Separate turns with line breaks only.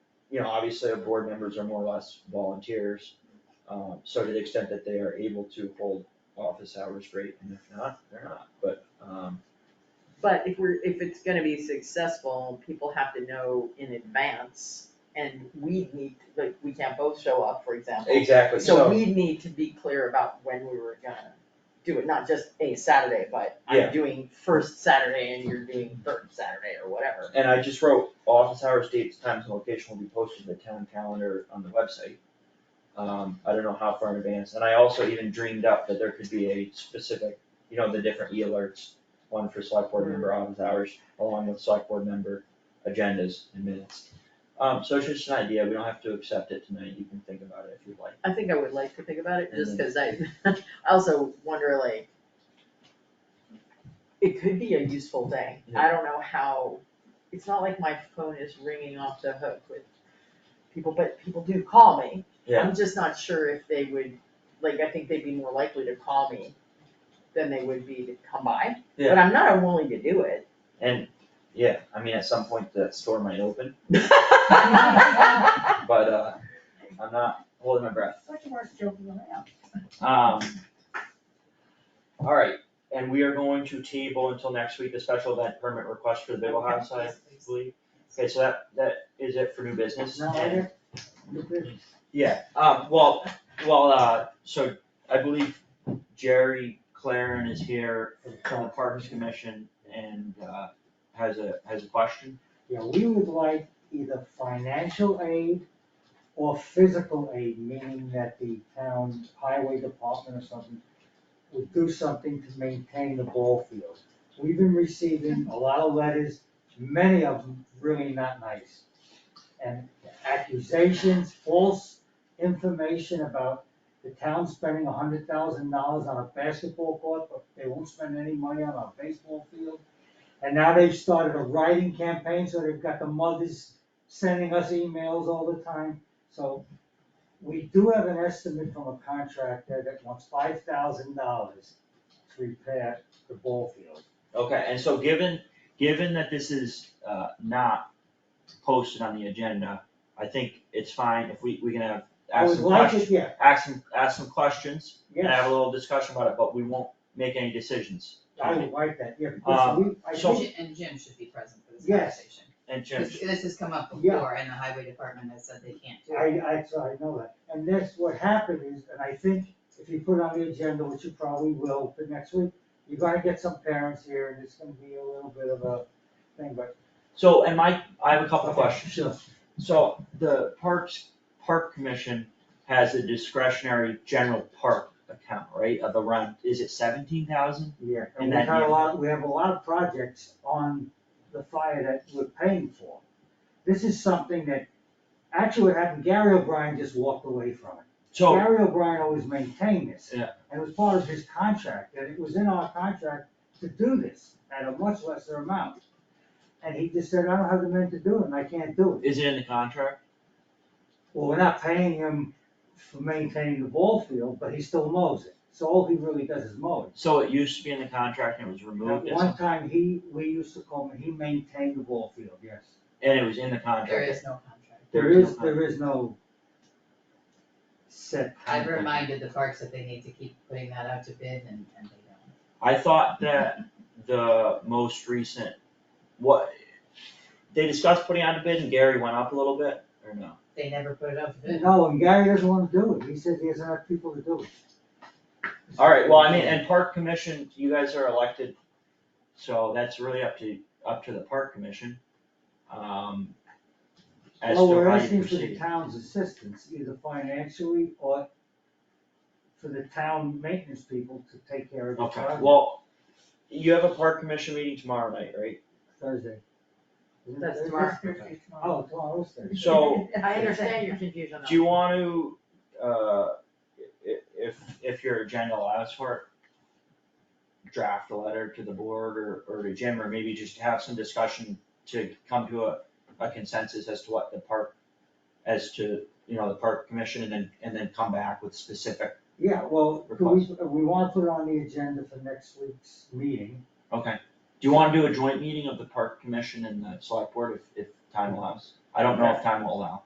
you know, obviously our board members are more or less volunteers. Um, so to the extent that they are able to hold office hours, great, and if not, they're not, but, um,
But if we're, if it's gonna be successful, people have to know in advance, and we need, like, we can't both show up, for example.
exactly,
So
so,
we need to be clear about when we were gonna do it, not just a Saturday, but
Yeah.
I'm doing first Saturday and you're doing third Saturday or whatever.
and I just wrote, office hours, dates, times, and location will be posted in the town calendar on the website. Um, I don't know how far in advance, and I also even dreamed up that there could be a specific, you know, the different e-alerts, one for select board member office hours, along with select board member agendas and minutes. Um, so it's just an idea, we don't have to accept it tonight, you can think about it if you'd like.
I think I would like to think about it, just cause
Mm-hmm.
I, I also wonder like, it could be a useful day, I don't know how, it's not like my phone is ringing off the hook with people, but people do call me.
Yeah.
I'm just not sure if they would, like, I think they'd be more likely to call me than they would be to come by, but
Yeah.
I'm not unwilling to do it.
And, yeah, I mean, at some point that store might open, but, uh, I'm not holding my breath.
Such a word joking around.
Um. Alright, and we are going to table until next week the special event permit request for the Bigel House, I believe. Okay, so that, that is it for new business. Yeah, um, well, well, uh, so I believe Jerry Claren is here from the Parks Commission and, uh, has a, has a question.
Yeah, we would like either financial aid or physical aid, meaning that the town highway department or something would do something to maintain the ball field. We've been receiving a lot of letters, many of them really not nice. And accusations, false information about the town spending a hundred thousand dollars on a basketball court, but they won't spend any money on a baseball field. And now they've started a writing campaign, so they've got the mothers sending us emails all the time. So we do have an estimate from a contractor that wants five thousand dollars to repair the ball field.
Okay, and so given, given that this is, uh, not posted on the agenda, I think it's fine if we, we can have,
I
ask
would
some
like
questions.
it, yeah,
ask some, ask some questions, and have a
yes,
little discussion about it, but we won't make any decisions.
I would like that, yeah, because we, I
Uh, so-
think,
Jim- And Jim should be present for this
Yes.
conversation.
And Jim,
'Cause this has come up
Yeah.
before and the highway department has said they can't do
I,
it.
I, so I know that. And that's what happened is, and I think if you put on the agenda, which you probably will for next week, you're gonna get some parents here and it's gonna be a little bit of a thing, but.
so, and my, I have a couple of questions.
Sure.
So the Parks, Park Commission has a discretionary general park account, right, of around, is it seventeen thousand?
Yeah,
And
and we
that
had
year.
a lot, we have a lot of projects on the fire that we're paying for. This is something that, actually what happened, Gary O'Brien just walked away from it.
So,
Gary O'Brien always maintained this.
Yeah.
And it was part of his contract, that it was in our contract to do this at a much lesser amount. And he just said, I don't have the men to do it, and I can't do it.
is it in the contract?
Well, we're not paying him for maintaining the ball field, but he still mows it. So all he really does is mow it.
So it used to be in the contract and it was
At
removed, as-
one time, he, we used to call him, he maintained the ball field, yes.
and it was in the
There
contract.
is no contract.
There
There
is
is,
no-
there is no set.
I've reminded the parks that they need to keep putting that out to bid and, and they don't.
I thought that the most recent, what, they discussed putting out a bid and Gary went up a little bit, or no?
They never put it out to bid.
No, and Gary doesn't wanna do it, he says he doesn't have people to do it.
Alright, well, I mean, and park commission, you guys are elected, so that's really up to, up to the park commission. Um. As
Well,
to
we're
how you
asking for the
proceed.
town's assistance, either financially or for the town maintenance people to take care of the
Okay,
project
well, you have a park commission meeting tomorrow night, right?
Thursday. Isn't it
That's
Thursday?
tomorrow.
Oh, tomorrow's Thursday.
So,
I understand your confusion on
do you want to, uh, i- if, if your agenda allows for it, draft a letter to the board or, or to Jim, or maybe just have some discussion to come to a, a consensus as to what the park, as to, you know, the park commission, and then, and then come back with specific,
Yeah, well,
Or
could we, we wanna put it on the agenda for next week's meeting.
okay? Do you wanna do a joint meeting of the park commission and the select board if, if time allows? I don't know if time will allow.